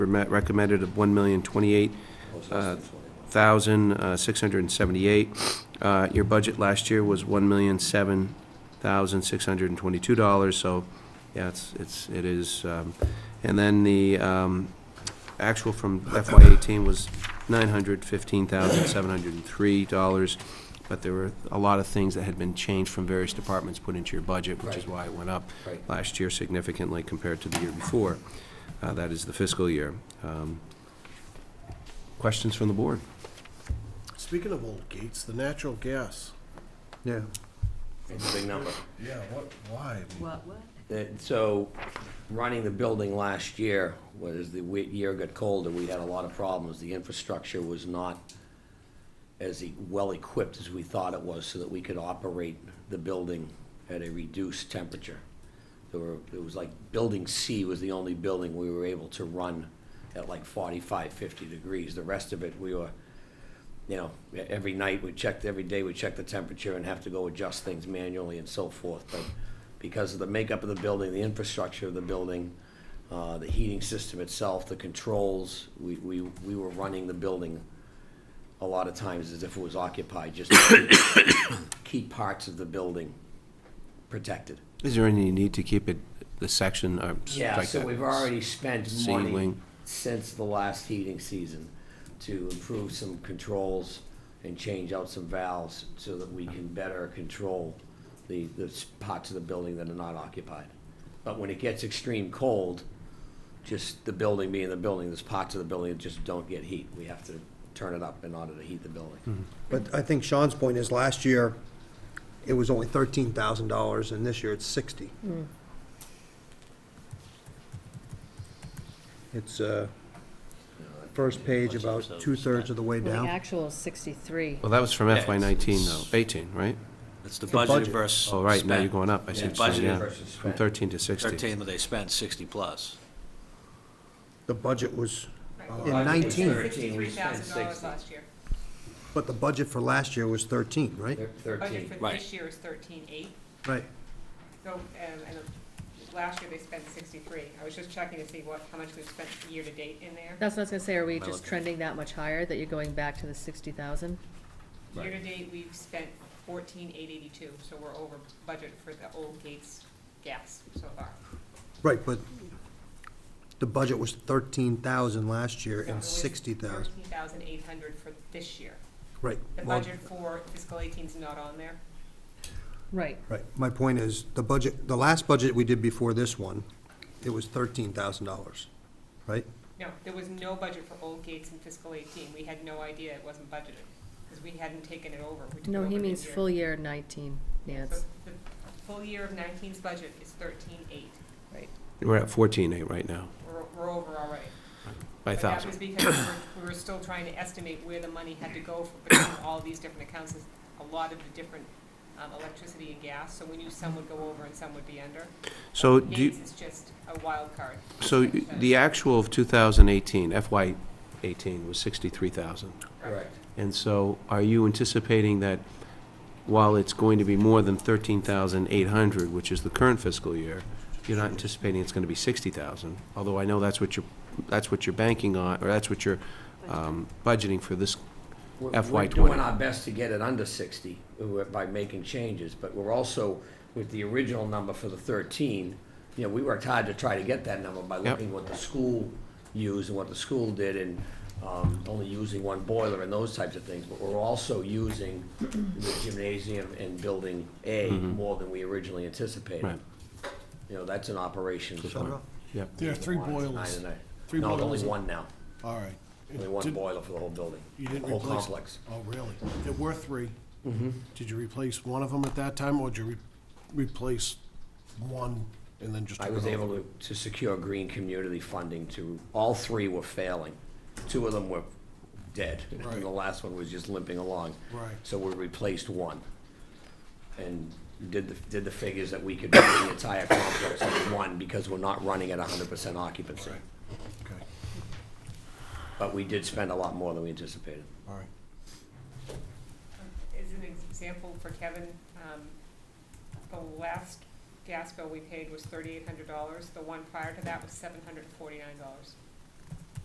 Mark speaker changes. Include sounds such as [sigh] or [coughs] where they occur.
Speaker 1: reme- recommended of one million twenty-eight uh, thousand uh, six hundred and seventy-eight. Uh, Your budget last year was one million seven thousand six hundred and twenty-two dollars, so, yeah, it's, it's, it is. um, And then the um, actual from FY eighteen was nine hundred fifteen thousand seven hundred and three dollars, but there were a lot of things that had been changed from various departments put into your budget, which is why it went up
Speaker 2: Right.
Speaker 1: last year significantly compared to the year before. Uh, That is the fiscal year. Um, Questions from the board?
Speaker 3: Speaking of old gates, the natural gas.
Speaker 4: Yeah.
Speaker 2: It's a big number.
Speaker 3: Yeah, what, why?
Speaker 5: What, what?
Speaker 2: That- So, running the building last year, was the we- year got colder, we had a lot of problems. The infrastructure was not as e- well-equipped as we thought it was, so that we could operate the building at a reduced temperature. There were, it was like, Building C was the only building we were able to run at like 45, 50 degrees. The rest of it, we were you know, e- every night we checked, every day we checked the temperature and have to go adjust things manually and so forth. But because of the makeup of the building, the infrastructure of the building, uh, the heating system itself, the controls, we, we, we were running the building a lot of times as if it was occupied, just [coughs] to keep parts of the building protected.
Speaker 1: Is there any need to keep it, the section, or s-
Speaker 2: Yeah,
Speaker 1: like
Speaker 2: so
Speaker 1: that?
Speaker 2: we've already spent money
Speaker 1: Ceiling.
Speaker 2: since the last heating season to improve some controls and change out some valves so that we can better control the, the s- parts of the building that are not occupied. But when it gets extreme cold, just the building being the building, there's parts of the building that just don't get heat. We have to turn it up in order to heat the building.
Speaker 1: Mm-hmm.
Speaker 4: But I think Sean's point is last year, it was only thirteen thousand dollars and this year it's sixty. It's, uh, first page about two-thirds of the way
Speaker 6: Well, the
Speaker 4: down.
Speaker 6: actual is 63.
Speaker 1: Well, that was from
Speaker 7: Yeah,
Speaker 1: FY nineteen though, eighteen, right?
Speaker 7: It's the
Speaker 4: The
Speaker 7: budget
Speaker 4: budget.
Speaker 7: versus
Speaker 1: Oh, right, now you're
Speaker 7: spent.
Speaker 1: going up, I see what
Speaker 7: Yeah,
Speaker 1: you're saying,
Speaker 7: budgeted
Speaker 1: yeah.
Speaker 2: versus
Speaker 1: From
Speaker 2: spent.
Speaker 1: thirteen to sixty.
Speaker 7: Thirteen, but they spent sixty plus.
Speaker 4: The budget was in
Speaker 2: Right.
Speaker 4: nineteen,
Speaker 2: Thirteen, we spent
Speaker 8: $63,000
Speaker 2: sixty.
Speaker 8: last year.
Speaker 4: but the budget for last year was thirteen, right?
Speaker 2: Thir-
Speaker 8: Budget
Speaker 2: Thirteen,
Speaker 8: for this
Speaker 7: Right.
Speaker 8: year is thirteen eight,
Speaker 4: Right.
Speaker 8: so, um, and uh, last year they spent sixty-three. I was just checking to see what, how much we spent year-to-date in there.
Speaker 6: That's what I was gonna say, are we
Speaker 7: Am I
Speaker 6: just
Speaker 7: looking?
Speaker 6: trending that much higher, that you're going back to the 60,000?
Speaker 2: Right.
Speaker 8: Year-to-date, we've spent fourteen eight eighty-two, so we're over budget for the old gates gas so far.
Speaker 4: Right, but the budget was thirteen thousand last year and sixty
Speaker 8: sixty
Speaker 4: thousand,
Speaker 8: Thirteen thousand eight hundred for this year.
Speaker 4: right.
Speaker 8: The
Speaker 4: well,
Speaker 8: budget for fiscal eighteen's not on there.
Speaker 6: Right.
Speaker 4: Right, my point is, the budget, the last budget we did before this one, it was thirteen thousand dollars, right?
Speaker 8: No, there was no budget for old gates in fiscal eighteen. We had no idea it wasn't budgeted, because we hadn't taken it over. We took it
Speaker 6: No,
Speaker 8: over
Speaker 6: he
Speaker 8: mid-year.
Speaker 6: means full year 19, Nance.
Speaker 8: So the full year of 19's budget is thirteen-eight.
Speaker 6: Right.
Speaker 1: We're at fourteen eight right now,
Speaker 8: We're, we're over already.
Speaker 1: by
Speaker 8: But that
Speaker 1: thousand.
Speaker 8: was because we were, we were still trying to estimate where the money had to go for between all these different accounts. There's a lot of the different um, electricity and gas, so we knew some would go over and some would be under.
Speaker 1: So do, you-
Speaker 8: Gates is just a wild card.
Speaker 1: so
Speaker 8: Percentage.
Speaker 1: the actual of two thousand eighteen, FY eighteen was sixty-three thousand.
Speaker 2: correct.
Speaker 1: And so are you anticipating that while it's going to be more than 13,800, which is the current fiscal year, you're not anticipating it's going to be 60,000? Although I know that's what you're, that's what you're banking on, or that's what you're um, budgeting for this
Speaker 2: We're-
Speaker 1: FY
Speaker 2: We're doing
Speaker 1: '20.
Speaker 2: our best to get it under sixty uh, by making changes, but we're also, with the original number for the thirteen, you know, we worked hard to try to get that number by looking what the school used and what the school did and, um, only using one boiler and those types of things, but we're also using the gymnasium and building A more than we originally anticipated.
Speaker 1: Right.
Speaker 2: You know, that's an operation.
Speaker 4: Shut it off.
Speaker 1: Yep.
Speaker 3: There are three boilers.
Speaker 2: Nine and
Speaker 3: Three
Speaker 2: a- No, there's
Speaker 3: boilers.
Speaker 2: only one now,
Speaker 3: All right. It
Speaker 2: only one
Speaker 3: did-
Speaker 2: boiler for the whole building,
Speaker 3: You didn't
Speaker 2: whole
Speaker 3: replace?
Speaker 2: complex. Mm-hmm.
Speaker 3: Oh, really? There were 3 Did you replace one of them at that time, or did you re- replace one and then just?
Speaker 2: I
Speaker 3: took
Speaker 2: was
Speaker 3: it off?
Speaker 2: able to, to secure green community funding to, all three were failing. Two of them were dead, and
Speaker 3: Right.
Speaker 2: the last one was just limping along.
Speaker 3: Right.
Speaker 2: So we replaced one. And did the, did the figures that we could do the entire complex on one, because we're not running at hundred percent occupancy.
Speaker 3: Right. Okay,
Speaker 2: But we did spend a lot more than we anticipated.
Speaker 3: all right.
Speaker 8: As an example for Kevin, um, the last gas bill we paid was thirty-eight hundred dollars. The one prior to that was seven hundred and forty-nine dollars.